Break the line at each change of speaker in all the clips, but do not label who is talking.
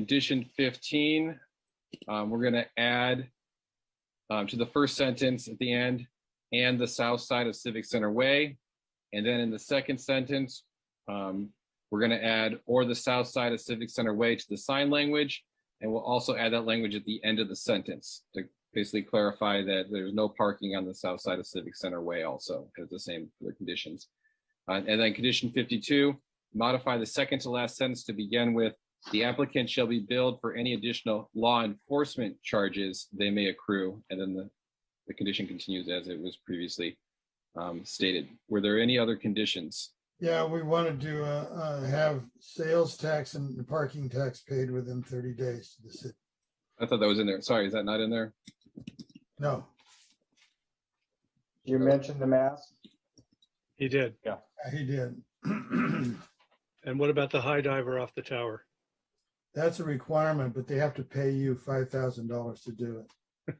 condition fifteen, um, we're gonna add um, to the first sentence at the end, and the south side of Civic Center Way. And then in the second sentence, um, we're gonna add or the south side of Civic Center Way to the sign language. And we'll also add that language at the end of the sentence to basically clarify that there's no parking on the south side of Civic Center Way also, because the same for the conditions. Uh, and then condition fifty-two, modify the second to last sentence to begin with, the applicant shall be billed for any additional law enforcement charges they may accrue, and then the, the condition continues as it was previously um, stated. Were there any other conditions?
Yeah, we wanted to uh, uh, have sales tax and parking tax paid within thirty days to the city.
I thought that was in there. Sorry, is that not in there?
No,
You mentioned the mask.
He did.
he did.
And what about the high diver off the tower?
That's a requirement, but they have to pay you five thousand dollars to do it.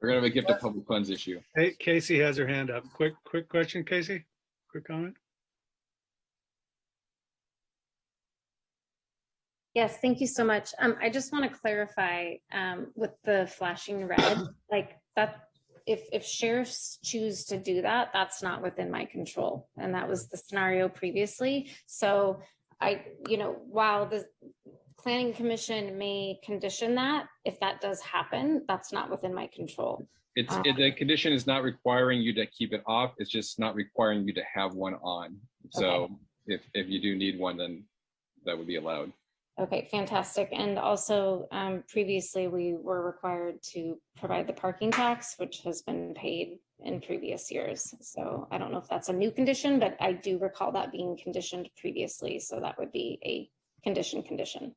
We're gonna have a gift of public funds issue.
Hey, Casey has her hand up. Quick, quick question, Casey? Quick comment?
Yes, thank you so much. Um, I just want to clarify, um, with the flashing red, like that, if, if sheriffs choose to do that, that's not within my control. And that was the scenario previously. So I, you know, while the planning commission may condition that, if that does happen, that's not within my control.
It's, it- the condition is not requiring you to keep it off. It's just not requiring you to have one on. So if, if you do need one, then that would be allowed.
Okay, fantastic. And also, um, previously, we were required to provide the parking tax, which has been paid in previous years. So I don't know if that's a new condition, but I do recall that being conditioned previously, so that would be a condition condition.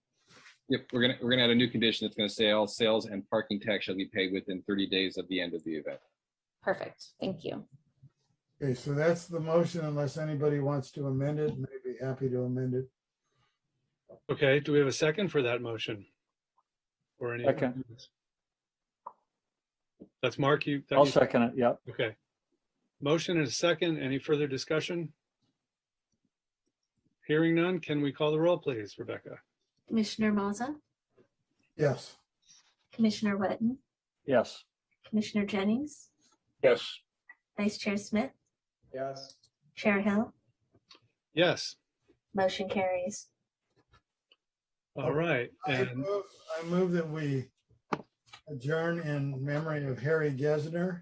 Yep, we're gonna, we're gonna add a new condition that's gonna say all sales and parking tax shall be paid within thirty days of the end of the event.
Perfect, thank you.
Okay, so that's the motion unless anybody wants to amend it, and I'd be happy to amend it.
Okay, do we have a second for that motion? Or any?
Second.
That's Mark, you. that
I'll
you-
second it. Yep.
Okay. Motion and a second. Any further discussion? Hearing none, can we call the roll, please, Rebecca?
Commissioner Maza,
Yes,
Commissioner Wetton,
Yes.
Commissioner Jennings,
Yes.
Vice Chair Smith,
Yes.
Chair Hill,
Yes,
motion carries.
all right.
I
And
move, I move that we adjourn in memory of Harry Gesner.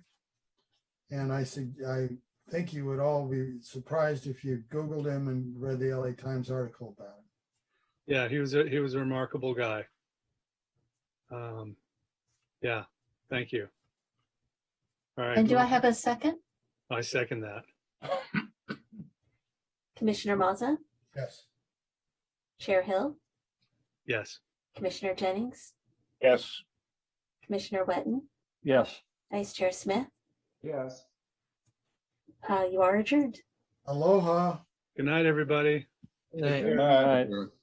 And I said, I think you would all be surprised if you Googled him and read the LA Times article about him.
Yeah, he was a he was a remarkable guy. Um, yeah, thank you. All right.
And do I have a second?
I second that.
Commissioner Maza,
Yes.
Chair Hill,
Yes.
Commissioner Jennings,
Yes.
Commissioner Wetton,
Yes.
Vice Chair Smith,
Yes.
uh, you are adjourned.
Aloha.
Good night, everybody.
All right.
Or-